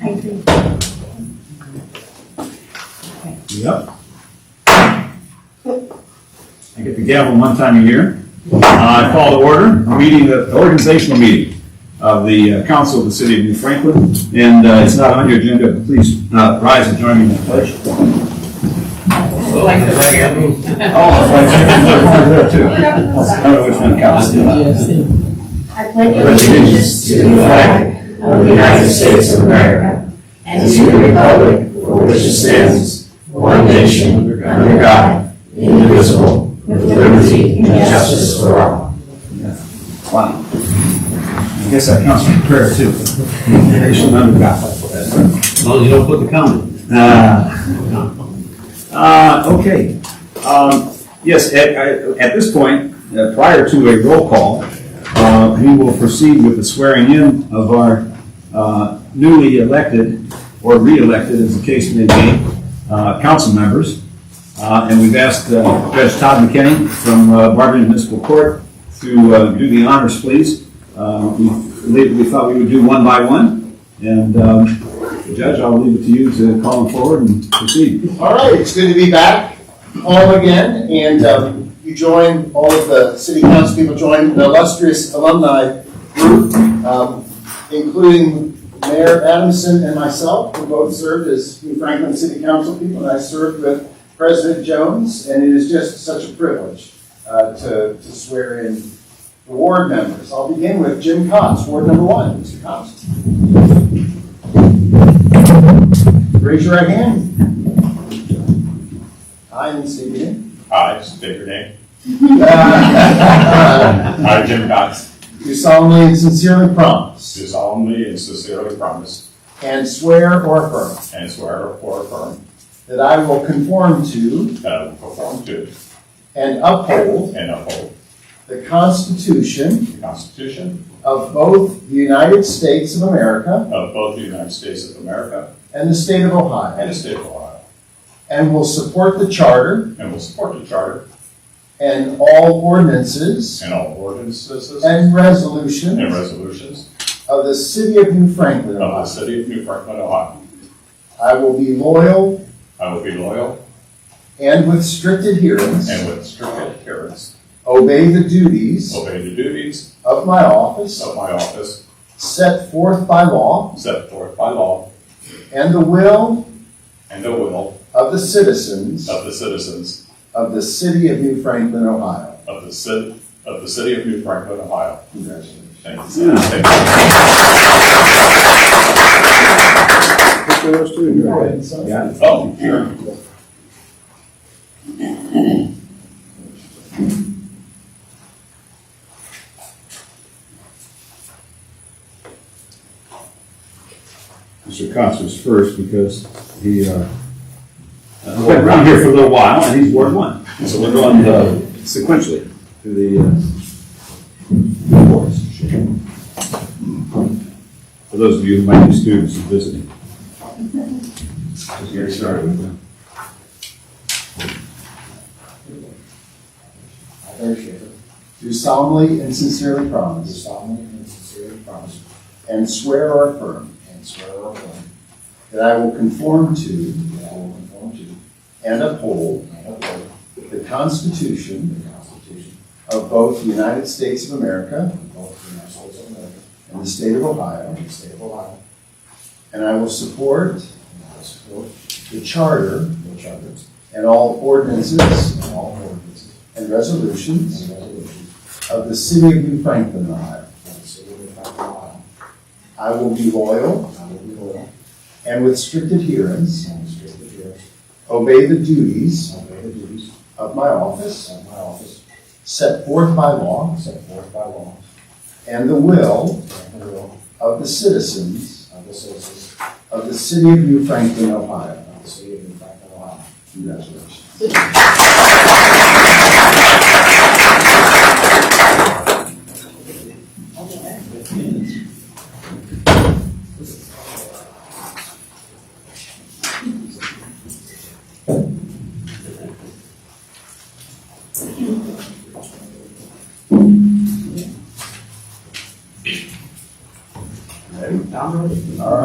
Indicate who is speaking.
Speaker 1: I agree.
Speaker 2: Yep. I get the gavel one time a year. Uh, I call to order, a meeting, the organizational meeting of the uh, Council of the City of New Franklin. And uh, it's not on your agenda, but please uh, rise and join me in the pledge.
Speaker 3: Like the regular.
Speaker 2: Oh, it's right there. There's one there, too. I don't know which one counts.
Speaker 1: I pledge
Speaker 4: allegiance to the flag of the United States of America and to the republic for which it stands, one nation, under God, indivisible, with liberty and justice for all.
Speaker 2: Wow. I guess that counts for prayer too. Nation under God.
Speaker 3: As long as you don't put the comment.
Speaker 2: Uh, uh, okay. Um, Yes, at, I- at this point, uh, prior to a roll call, uh, we will proceed with the swearing in of our uh, newly elected, or re-elected, as the case may be, uh, council members. Uh, And we've asked uh, Judge Todd McKinney from uh, Barberton Municipal Court to uh, do the honors, please. Uh, We we thought we would do one by one, and um, Judge, I'll leave it to you to call them forward and proceed.
Speaker 5: All right, it's good to be back home again, and um, you join, all of the city council people join the illustrious alumni group, um, including Mayor Adamson and myself, who both served as New Franklin City Council people, and I served with President Jones, and it is just such a privilege uh, to to swear in the ward members. I'll begin with Jim Cox, Ward Number One, Mr. Cox. Raise your right hand. I am Stephen.
Speaker 6: Hi, just a bigger name.
Speaker 5: Do
Speaker 6: I, Jim Cox,
Speaker 5: uh, solemnly and sincerely
Speaker 6: do
Speaker 5: promise
Speaker 6: solemnly and sincerely promise
Speaker 5: and swear or affirm
Speaker 6: and swear or affirm
Speaker 5: that I will conform to
Speaker 6: that I will perform to
Speaker 5: and uphold
Speaker 6: and uphold
Speaker 5: the Constitution
Speaker 6: the Constitution
Speaker 5: of both the United States of America
Speaker 6: of both the United States of America
Speaker 5: and the State of
Speaker 6: and
Speaker 5: Ohio,
Speaker 6: the State of Ohio,
Speaker 5: and will support the Charter
Speaker 6: and will support the Charter
Speaker 5: and all ordinances
Speaker 6: and all ordinances and
Speaker 5: and resolutions
Speaker 6: resolutions
Speaker 5: of the City of New Franklin,
Speaker 6: of the
Speaker 5: Ohio.
Speaker 6: City of New Franklin, Ohio.
Speaker 5: I will be loyal
Speaker 6: I will be loyal
Speaker 5: and with strict adherence
Speaker 6: and Oh. with strict adherence
Speaker 5: obey the duties
Speaker 6: obey the duties
Speaker 5: of my office
Speaker 6: of my office
Speaker 5: set forth by law
Speaker 6: set forth by law
Speaker 5: and the will
Speaker 6: and the will
Speaker 5: of the citizens
Speaker 6: of the citizens
Speaker 5: of the city of New Franklin, Ohio.
Speaker 6: of the city, of the City of New Franklin, Ohio.
Speaker 5: Congratulations.
Speaker 6: Thank you. sir. Thank you.
Speaker 2: Yeah.
Speaker 6: Oh, sure.
Speaker 2: Mr. Cox was first because he, uh, uh, went around here for a little while and he's Ward One. So we're going uh, sequentially to the, uh, wards. For those of you who might be students and visiting. Just get started with them.
Speaker 5: Do solemnly and sincerely promise. solemnly and sincerely promise. And swear or affirm. And swear or affirm. That I will conform to. I will conform to. And uphold. The Constitution. Of both the United States of America. And the state of Ohio. And I will support. The charter. And all ordinances. And all ordinances and resolutions of the city of New Franklin, Ohio. I will be loyal and with strict adherence obey the duties of my office set forth by law and the will of the citizens of the city of New Franklin, Ohio. Congratulations. Ready? All right.